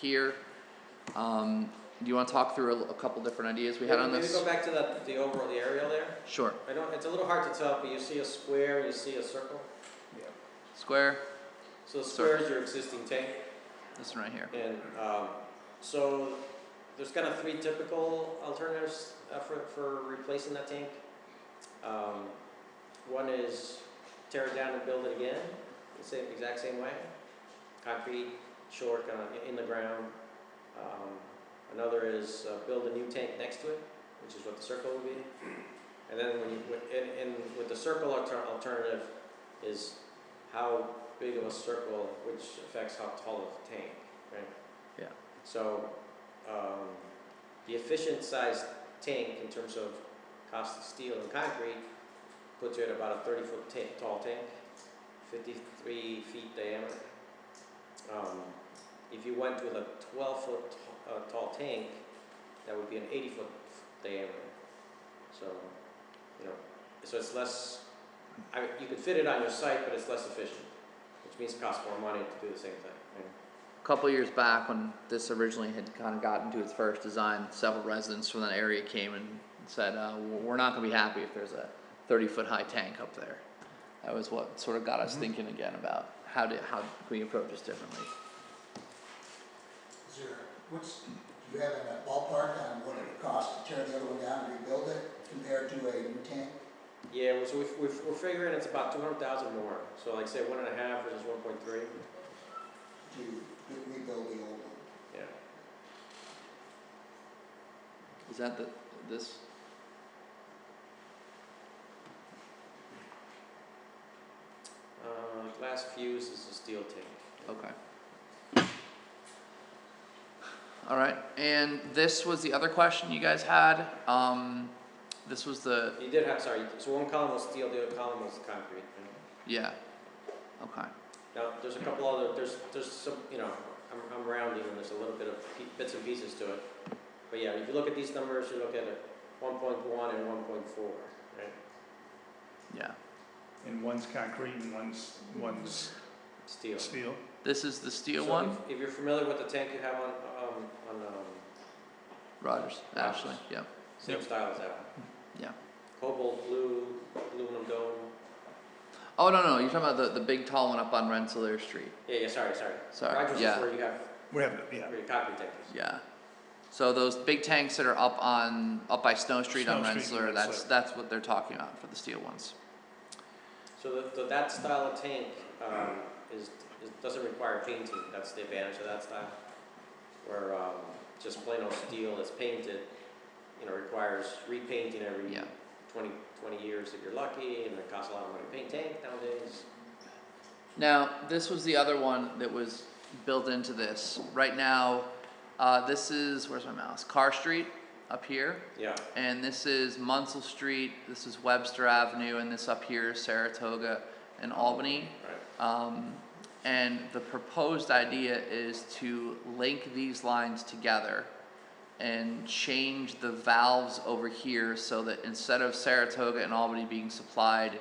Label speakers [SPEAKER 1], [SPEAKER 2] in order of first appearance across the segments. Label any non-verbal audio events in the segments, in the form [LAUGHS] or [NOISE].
[SPEAKER 1] here. Um, do you want to talk through a, a couple different ideas we had on
[SPEAKER 2] Maybe
[SPEAKER 1] this?
[SPEAKER 2] go back to that, the overall, the aerial there.
[SPEAKER 1] Sure.
[SPEAKER 2] I don't, it's a little hard to tell, but you see a square, you see a circle.
[SPEAKER 1] Square,
[SPEAKER 2] So the square is your existing tank,
[SPEAKER 1] this one right here.
[SPEAKER 2] and, um, so there's kind of three typical alternatives uh, for, for replacing that tank. Um, one is tear it down and build it again, the same, exact same way, concrete, short, kind of in the ground. Um, another is uh, build a new tank next to it, which is what the circle would be. And then when you, with- and, and with the circle alter- alternative is how big of a circle, which affects how tall of the tank, right?
[SPEAKER 1] Yeah.
[SPEAKER 2] So, um, the efficient sized tank in terms of cost of steel and concrete puts you at about a thirty foot ta- tall tank, fifty-three feet diameter. Um, if you went with a twelve foot t- uh, tall tank, that would be an eighty foot diameter. So, you know, so it's less, I, you could fit it on your site, but it's less efficient, which means it costs more money to do the same thing, right?
[SPEAKER 1] A couple years back, when this originally had kind of gotten to its first design, several residents from that area came and said, uh, "We're not going to be happy if there's a 30 foot high tank up there." That was what sort of got us thinking again about how do how can we approach this differently.
[SPEAKER 3] Is there, what's, do you have a ballpark on what it would cost to tear the other one down and rebuild it compared to a new tank?
[SPEAKER 2] Yeah, well, so we've, we've, we're figuring it's about two hundred thousand more, so like say one and a half versus one point three,
[SPEAKER 3] to re- rebuild the old one?
[SPEAKER 2] yeah.
[SPEAKER 1] Is that the this?
[SPEAKER 2] Uh, glass fuse is a steel tank.
[SPEAKER 1] Okay. All right, and this was the other question you guys had. Um, this was the
[SPEAKER 2] You did have, sorry, so one column was steel, the other column was concrete. right?
[SPEAKER 1] yeah. Okay.
[SPEAKER 2] Now, there's a couple other, there's, there's some, you know, I'm, I'm rounding and there's a little bit of pe- bits and pieces to it. But yeah, if you look at these numbers, you look at it, one point one and one point four, right?
[SPEAKER 1] Yeah.
[SPEAKER 4] And one's concrete and one's, one's
[SPEAKER 2] Steel.
[SPEAKER 4] steel.
[SPEAKER 1] This is the steel
[SPEAKER 2] So
[SPEAKER 1] one.
[SPEAKER 2] if- If you're familiar with the tank you have on, um, on, um,
[SPEAKER 1] Rogers, Ashley.
[SPEAKER 2] Rogers.
[SPEAKER 1] Yep.
[SPEAKER 2] Same
[SPEAKER 4] Yep.
[SPEAKER 2] style as that one.
[SPEAKER 1] Yeah.
[SPEAKER 2] Cobalt blue, aluminum dome.
[SPEAKER 1] Oh no no, you're talking about the, the big tall one up on Rensselaer Street.
[SPEAKER 2] Yeah, yeah, sorry, sorry.
[SPEAKER 1] Sorry,
[SPEAKER 2] Rogers is
[SPEAKER 1] yeah.
[SPEAKER 2] where you have,
[SPEAKER 4] We have, yeah.
[SPEAKER 2] where your concrete tank is.
[SPEAKER 1] Yeah. So those big tanks that are up on up by Snow Street on
[SPEAKER 4] Snow Street,
[SPEAKER 1] Rensselaer, that's
[SPEAKER 4] Rensselaer.
[SPEAKER 1] that's what they're talking about for the steel ones.
[SPEAKER 2] So that, so that style of tank, um, is, is, doesn't require painting, that's the advantage of that style. Where, um, just plain old steel that's painted, you know, requires repainting every
[SPEAKER 1] Yeah.
[SPEAKER 2] 20 20 years if you're lucky, and it costs a lot of money to paint tank nowadays.
[SPEAKER 1] Now, this was the other one that was built into this. Right now, uh, this is, where's my mouse? Carr Street up here,
[SPEAKER 2] Yeah,
[SPEAKER 1] and this is Munsell Street, this is Webster Avenue, and this up here is Saratoga and Albany.
[SPEAKER 2] right.
[SPEAKER 1] Um, and the proposed idea is to link these lines together and change the valves over here so that instead of Saratoga and Albany being supplied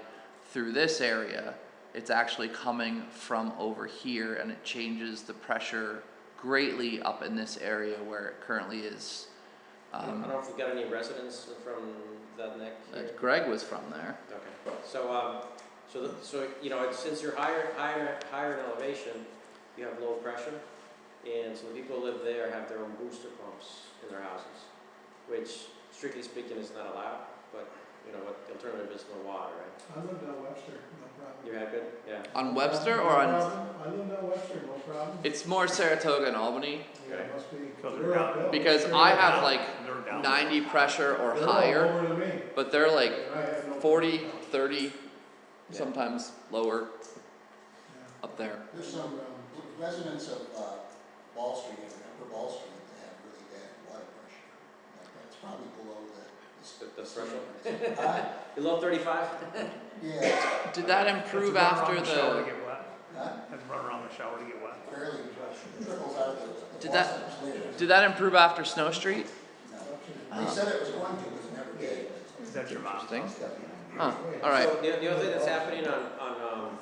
[SPEAKER 1] through this area, it's actually coming from over here and it changes the pressure greatly up in this area where it currently is.
[SPEAKER 2] I don't I don't
[SPEAKER 1] Um,
[SPEAKER 2] know if we got any residents from that neck here.
[SPEAKER 1] that Greg was from there.
[SPEAKER 2] Okay, so, um, so, the- so, you know, it's- since you're higher, higher, higher in elevation, you have low pressure. And so the people who live there have their own booster pumps in their houses, which strictly speaking is not allowed, but, you know, what, the alternative is no water, right?
[SPEAKER 5] I live down Webster, no problem.
[SPEAKER 2] You have it, yeah,
[SPEAKER 1] On Webster
[SPEAKER 5] No
[SPEAKER 1] or on,
[SPEAKER 5] problem. I live down Webster, no problem.
[SPEAKER 1] it's more Saratoga and Albany
[SPEAKER 5] Yeah,
[SPEAKER 2] Okay.
[SPEAKER 5] it must be.
[SPEAKER 4] Because they're
[SPEAKER 5] They're
[SPEAKER 4] down.
[SPEAKER 5] uphill.
[SPEAKER 1] because
[SPEAKER 5] They're
[SPEAKER 1] I
[SPEAKER 5] all-
[SPEAKER 1] have like
[SPEAKER 4] They're down.
[SPEAKER 1] 90 pressure or
[SPEAKER 5] they're all
[SPEAKER 1] higher,
[SPEAKER 5] lower than me.
[SPEAKER 1] but they're like
[SPEAKER 5] Right, I have no
[SPEAKER 1] 40,
[SPEAKER 5] problem.
[SPEAKER 1] 30,
[SPEAKER 2] Yeah.
[SPEAKER 1] sometimes lower
[SPEAKER 5] Yeah.
[SPEAKER 1] up there.
[SPEAKER 3] There's some um, residents of uh, Wall Street, and Upper Wall Street, that have really bad water pressure. Like, That's probably below the.
[SPEAKER 2] the, the threshold.
[SPEAKER 3] [LAUGHS] Huh?
[SPEAKER 2] Below thirty-five?
[SPEAKER 3] Yeah,
[SPEAKER 1] Did that
[SPEAKER 4] Have to
[SPEAKER 1] improve
[SPEAKER 4] run
[SPEAKER 1] after
[SPEAKER 4] around shower
[SPEAKER 1] the?
[SPEAKER 4] to get wet.
[SPEAKER 3] huh?
[SPEAKER 4] Have to run around the shower to get wet.
[SPEAKER 3] barely trickles out of the- the.
[SPEAKER 1] Did that-
[SPEAKER 3] faucets later.
[SPEAKER 1] Did that improve after Snow Street?
[SPEAKER 3] No. They said it was going to, but it never did.
[SPEAKER 4] Is that your mom's
[SPEAKER 1] Interesting. Huh.
[SPEAKER 4] house?
[SPEAKER 1] All right.
[SPEAKER 2] So the, the other thing that's happening on, on, um,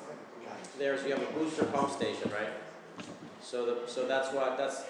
[SPEAKER 2] there is you have a booster pump station, right? So the, so that's why, that's,